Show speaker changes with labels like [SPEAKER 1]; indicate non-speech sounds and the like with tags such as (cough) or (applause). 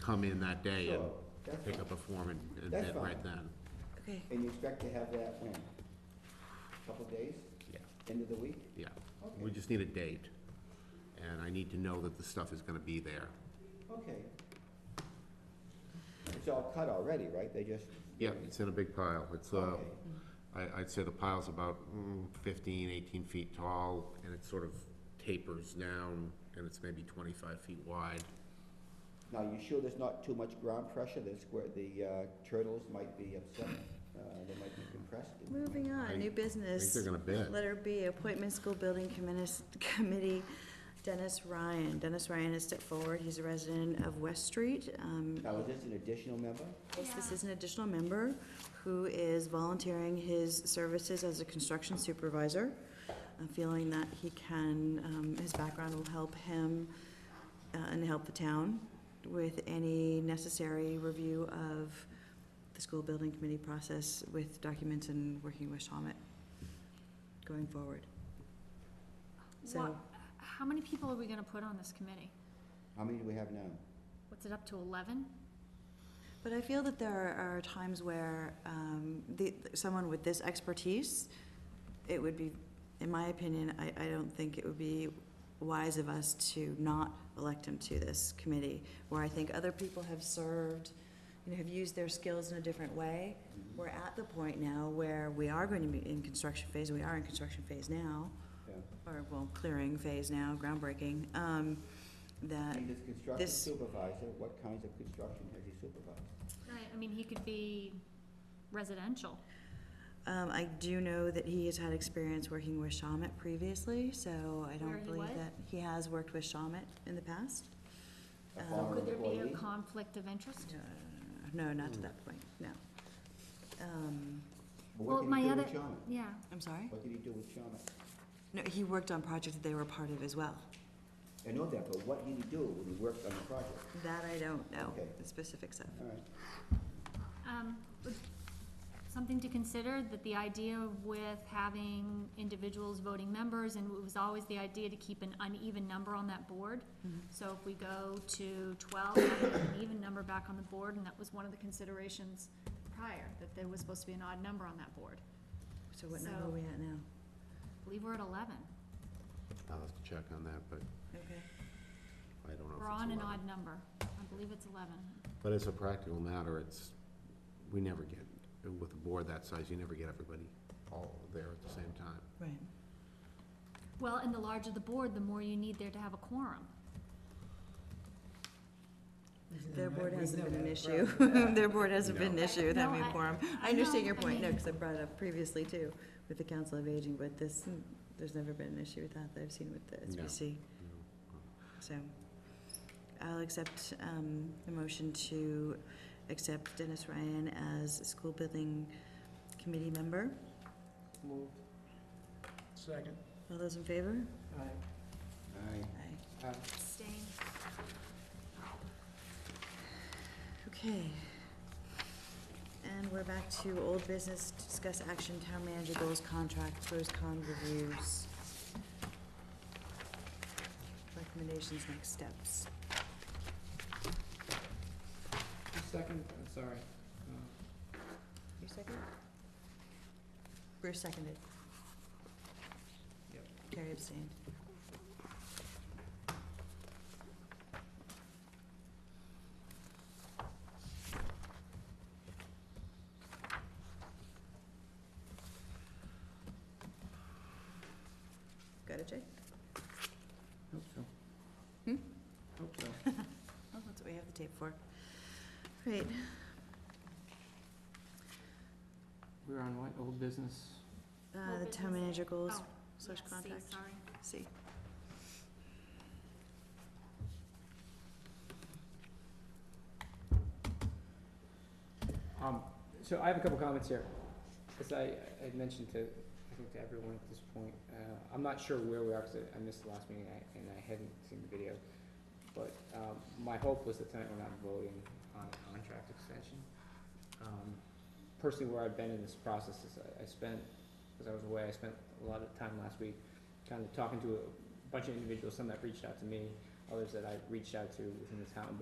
[SPEAKER 1] come in that day and
[SPEAKER 2] Sure, that's
[SPEAKER 1] pick
[SPEAKER 2] fine.
[SPEAKER 1] up a form and, and
[SPEAKER 2] That's
[SPEAKER 1] bid right
[SPEAKER 2] fine.
[SPEAKER 1] then.
[SPEAKER 3] Okay,
[SPEAKER 2] And you expect to have that when? Couple days,
[SPEAKER 1] Yeah.
[SPEAKER 2] end of the week?
[SPEAKER 1] Yeah, we
[SPEAKER 2] Okay,
[SPEAKER 1] just need a date, and I need to know that the stuff is gonna be there.
[SPEAKER 2] okay. It's all cut already, right? They just.
[SPEAKER 1] Yeah, it's in a big pile, it's, uh,
[SPEAKER 2] Okay.
[SPEAKER 1] I, I'd say the pile's about mm, 15, 18 feet tall, and it sort of tapers down, and it's maybe twenty-five feet wide.
[SPEAKER 2] Now, you sure there's not too much ground pressure that's where the uh, turtles might be upset? Uh, They might be compressed?
[SPEAKER 3] moving
[SPEAKER 1] I
[SPEAKER 3] on, new
[SPEAKER 1] think I think
[SPEAKER 3] business.
[SPEAKER 1] they're gonna bid.
[SPEAKER 3] Letter B, appointment school building committee, committee, Dennis Ryan. Dennis Ryan has stepped forward, he's a resident of West Street. Um,
[SPEAKER 2] Now, is this an additional member?
[SPEAKER 3] Yes, This is an additional member who is volunteering his services as a construction supervisor, uh, feeling that he can, um, his background will help him uh, and help the town with any necessary review of the school building committee process with documents and working with Shawmut going forward.
[SPEAKER 4] What,
[SPEAKER 3] So-
[SPEAKER 4] how many people are we gonna put on this committee?
[SPEAKER 2] How many do we have now?
[SPEAKER 4] What's it up to, eleven?
[SPEAKER 3] But I feel that there are are times where um, the, someone with this expertise, it would be, in my opinion, I, I don't think it would be wise of us to not elect him to this committee, where I think other people have served, you know, have used their skills in a different way.
[SPEAKER 4] Uh,
[SPEAKER 3] We're at the point now where we are going to be in construction phase, we are in construction phase now,
[SPEAKER 2] Yeah.
[SPEAKER 3] or, well, clearing phase now, groundbreaking, um, that,
[SPEAKER 2] And this construction
[SPEAKER 3] this-
[SPEAKER 2] supervisor, what kinds of construction has he supervised?
[SPEAKER 4] Right, I mean, he could be residential.
[SPEAKER 3] Um, I do know that he has had experience working with Shamit previously, so I
[SPEAKER 4] Where
[SPEAKER 3] don't
[SPEAKER 4] he
[SPEAKER 3] believe
[SPEAKER 4] what?
[SPEAKER 3] that he has worked with Shamit in the past.
[SPEAKER 2] A
[SPEAKER 3] Um,
[SPEAKER 2] former
[SPEAKER 4] Could Uh, there be a
[SPEAKER 2] employee?
[SPEAKER 4] conflict of interest?
[SPEAKER 3] No, not to that point, no. Um,
[SPEAKER 2] But
[SPEAKER 4] Well,
[SPEAKER 2] What did
[SPEAKER 4] my
[SPEAKER 2] he do
[SPEAKER 4] other-
[SPEAKER 2] with Shawna?
[SPEAKER 4] Yeah,
[SPEAKER 3] I'm sorry?
[SPEAKER 2] What did he do with Shawna?
[SPEAKER 3] No, he worked on projects that they were part of as well.
[SPEAKER 2] I know that, but what did he do when he worked on the project?
[SPEAKER 3] That I don't know,
[SPEAKER 2] Okay.
[SPEAKER 3] the specifics of.
[SPEAKER 2] All right.
[SPEAKER 4] um, but something to consider, that the idea with having individuals voting members, and it was always the idea to keep an uneven number on that board. So if we go to twelve, have an even number back on the board, and that was one of the considerations prior, that there was supposed to be an odd number on that board.
[SPEAKER 3] So what number are
[SPEAKER 4] So-
[SPEAKER 3] we at now?
[SPEAKER 4] I believe we're at eleven.
[SPEAKER 1] I'll have to check on that, but
[SPEAKER 3] Okay.
[SPEAKER 1] I don't know if
[SPEAKER 4] We're on
[SPEAKER 1] it's
[SPEAKER 4] an
[SPEAKER 1] 11.
[SPEAKER 4] odd number. I believe it's eleven.
[SPEAKER 1] But as a practical matter, it's, we never get, with a board that size, you never get everybody all there at the same time.
[SPEAKER 3] Right.
[SPEAKER 4] Well, and the larger the board, the more you need there to have a quorum.
[SPEAKER 3] Their board hasn't been an issue. (laughs) Their board hasn't been an
[SPEAKER 1] No.
[SPEAKER 3] issue with
[SPEAKER 4] No,
[SPEAKER 3] having a
[SPEAKER 4] I-
[SPEAKER 3] quorum. I
[SPEAKER 4] I
[SPEAKER 3] understand
[SPEAKER 4] know,
[SPEAKER 3] your
[SPEAKER 4] I
[SPEAKER 3] point, no,
[SPEAKER 4] mean-
[SPEAKER 3] because I brought it up previously too, with the Council of Aging, but this, there's never been an issue with that that I've seen with the
[SPEAKER 1] No.
[SPEAKER 3] SBC,
[SPEAKER 1] you know.
[SPEAKER 3] so. I'll accept, um, the motion to accept Dennis Ryan as a school building committee member.
[SPEAKER 2] Moved.
[SPEAKER 5] Second.
[SPEAKER 3] All those in favor?
[SPEAKER 5] Aye.
[SPEAKER 2] Aye.
[SPEAKER 3] Aye.
[SPEAKER 2] Aye.
[SPEAKER 4] Abstain.
[SPEAKER 3] Okay. And we're back to old business, discuss action, town manager goals, contracts, pros, con reviews. Recommendations, next steps.
[SPEAKER 5] Second, uh, sorry. Uh,
[SPEAKER 3] You second? Bruce seconded.
[SPEAKER 5] Yep.
[SPEAKER 3] Carrie abstained. Got it, Jay?
[SPEAKER 2] Hope so.
[SPEAKER 3] Hmm?
[SPEAKER 2] Hope
[SPEAKER 3] (laughs)
[SPEAKER 2] so.
[SPEAKER 3] Oh, that's what we have the tape for. Great.
[SPEAKER 5] We're on what, old business?
[SPEAKER 3] Uh, the
[SPEAKER 4] Old
[SPEAKER 3] town
[SPEAKER 4] business.
[SPEAKER 3] manager goals
[SPEAKER 4] Oh,
[SPEAKER 3] slash
[SPEAKER 4] yes, see,
[SPEAKER 3] contact.
[SPEAKER 4] Sorry.
[SPEAKER 3] See.
[SPEAKER 5] Um, so I have a couple comments here. As I, I had mentioned to, I think to everyone at this point, uh, I'm not sure where we are, cause I- I missed the last meeting, I, and I hadn't seen the video. But, um, my hope was that tonight we're not voting on a contract extension. Um, personally, where I've been in this process is I, I spent, cause I was away, I spent a lot of time last week kind of talking to a bunch of individuals, some that reached out to me, others that I reached out to within the town,